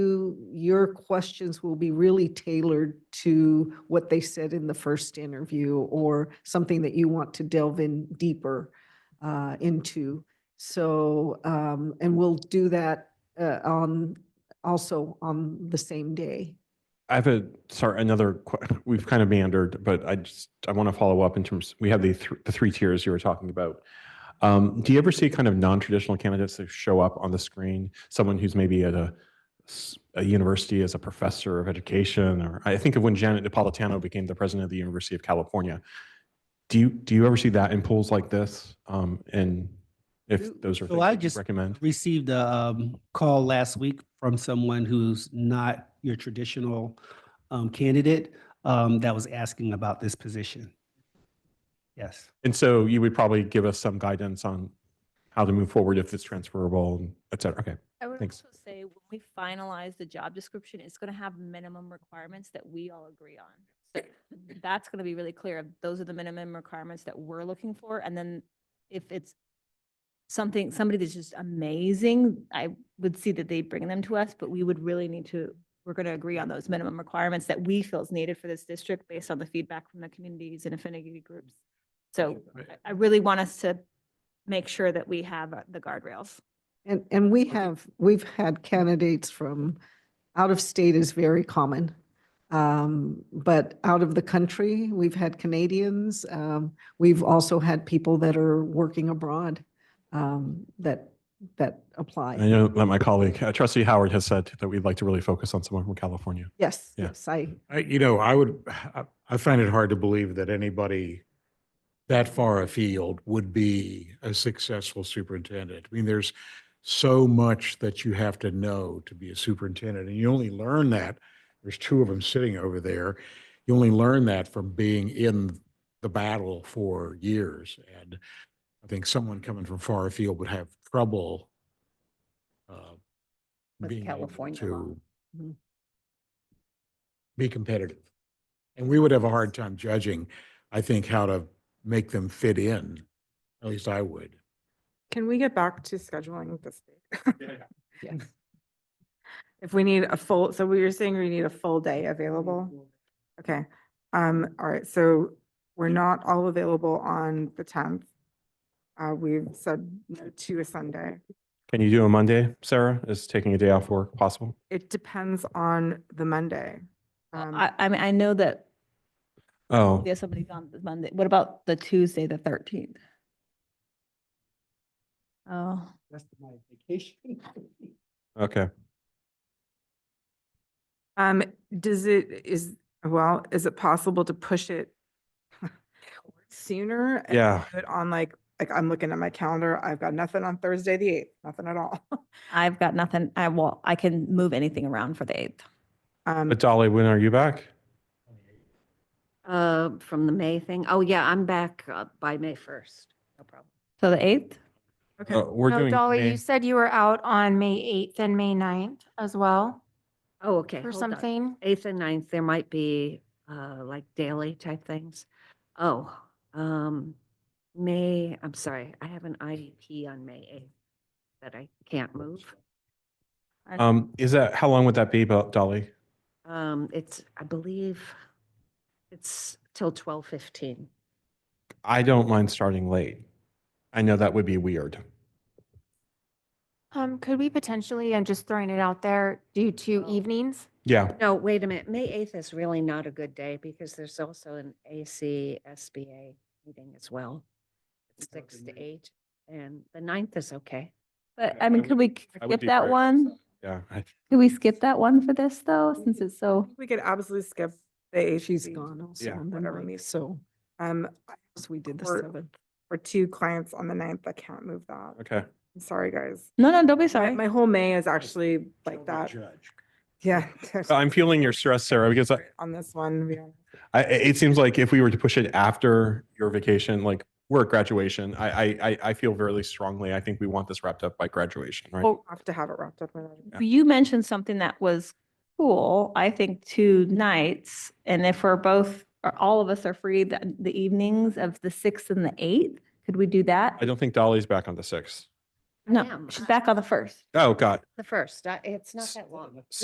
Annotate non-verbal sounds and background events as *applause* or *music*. you, your questions will be really tailored to what they said in the first interview or something that you want to delve in deeper uh, into. So, um, and we'll do that uh, on, also on the same day. I have a, sorry, another, que- we've kind of meandered, but I just, I want to follow up in terms, we have the, thr- the three tiers you were talking about. Um, do you ever see kind of non-traditional candidates that show up on the screen? Someone who's maybe at a, s- a university as a professor of education, or I think of when Janet Napolitano became the president of the University of California. Do you, do you ever see that in polls like this? Um, and Ooh. if those are So things I that you'd just- recommend? Received a um, call last week from someone who's not your traditional um, candidate um, that was asking about this position. Yes, And so you would probably give us some guidance on how to move forward if it's transferable, and et cetera. Okay. I would Thanks. also say when we finalize the job description, it's going to have minimum requirements that we all agree on. So that's going to be really clear. of Those are the minimum requirements that we're looking for. And then if it's something, somebody that's just amazing, I would see that they bring them to us, but we would really need to, we're going to agree on those minimum requirements that we feel is needed for this district based on the feedback from the communities and affinity groups. So I- I really want us to make sure that we have uh, the guardrails. And, and we have, we've had candidates from, out of state is very common. Um, But out of the country, we've had Canadians. um, We've also had people that are working abroad um, that, that I apply. know that my colleague, uh, trustee Howard has said that we'd like to really focus on someone from California. Yes, Yeah. yes, I, I, you know, I would, I- I find it hard to believe that anybody that far afield would be a successful superintendent. I mean, there's so much that you have to know to be a superintendent, and you only learn that, there's two of them sitting over there. You only learn that from being in the battle for years. And I think someone coming from far afield would have trouble uh, With being able California law. Mm-hmm. to Mhm. be competitive. And we would have a hard time judging, I think, how to make them fit in. At least I would. Can we get back to scheduling this? week? yes. *laughs* If we need a full, so we were saying we need a full day available? Okay, um, all right, so we're not all available on the tenth. Uh, we've said no to a Sunday. Can you do a Monday, Sarah? Is taking a day off work possible? It depends on the Monday. Well, Um, Uh, I, I mean, I know that Oh, we have somebody on the Monday. What about the Tuesday, the thirteenth? Oh, okay. Um, does it, is, well, is it possible to push it *laughs* sooner? and Yeah. do it On like, like I'm looking at my calendar, I've got nothing on Thursday, the eighth, nothing at all. *laughs* I've got nothing. I will, I can move anything around for the eighth. Um, But Dolly, when are you back? Uh, from the May thing? Oh, yeah, I'm back uh, by May 1st. No problem. So the eighth? okay. Uh, We're No, doing. Oh, Dolly, May- you said you were out on May 8th and May 9th as well Oh, okay. for hold on. something. 8th and 9th, there might be uh, like daily type things. Oh, um, May, I'm sorry, I have an IEP on May 8th that I can't move. Um, is that, how long would that be, Bo- Dolly? Um, It's, I believe, it's till 12:15. I don't mind starting late. I know that would be weird. Um, could we potentially, I'm just throwing it out there, do two Oh. evenings? Yeah, No, wait a minute, May 8th is really not a good day because there's also an AC SBA meeting as well. It's six to eight, and the ninth is okay. But Yeah, I mean, I could we k- I would skip do that Friday. one? yeah. I- Could we skip that one for this though, since it's so? We could absolutely skip the eighth. She's gone also Yeah. on the Whatever ninth, meeting. so, Um, I- so we did the Or- seventh. for two clients on the ninth, I can't move that. Okay. I'm sorry, guys. No, no, don't be My- sorry. My whole May is actually like that. Judge. Yeah. *laughs* So I'm feeling your stress, Sarah, because I, On this one, we don't- I, i- it seems like if we were to push it after your vacation, like we're at graduation, I, I, I- I feel very strongly, I think we want this wrapped up by graduation, right? Well, have to have it wrapped up. by then. You mentioned something that was cool, I think, two nights. And if we're both, or all of us are free the, the evenings of the sixth and the eighth, could we do that? I don't think Dolly's back on the sixth. I No, am. she's back on the first. Oh, God. The first, I- uh, it's not that long.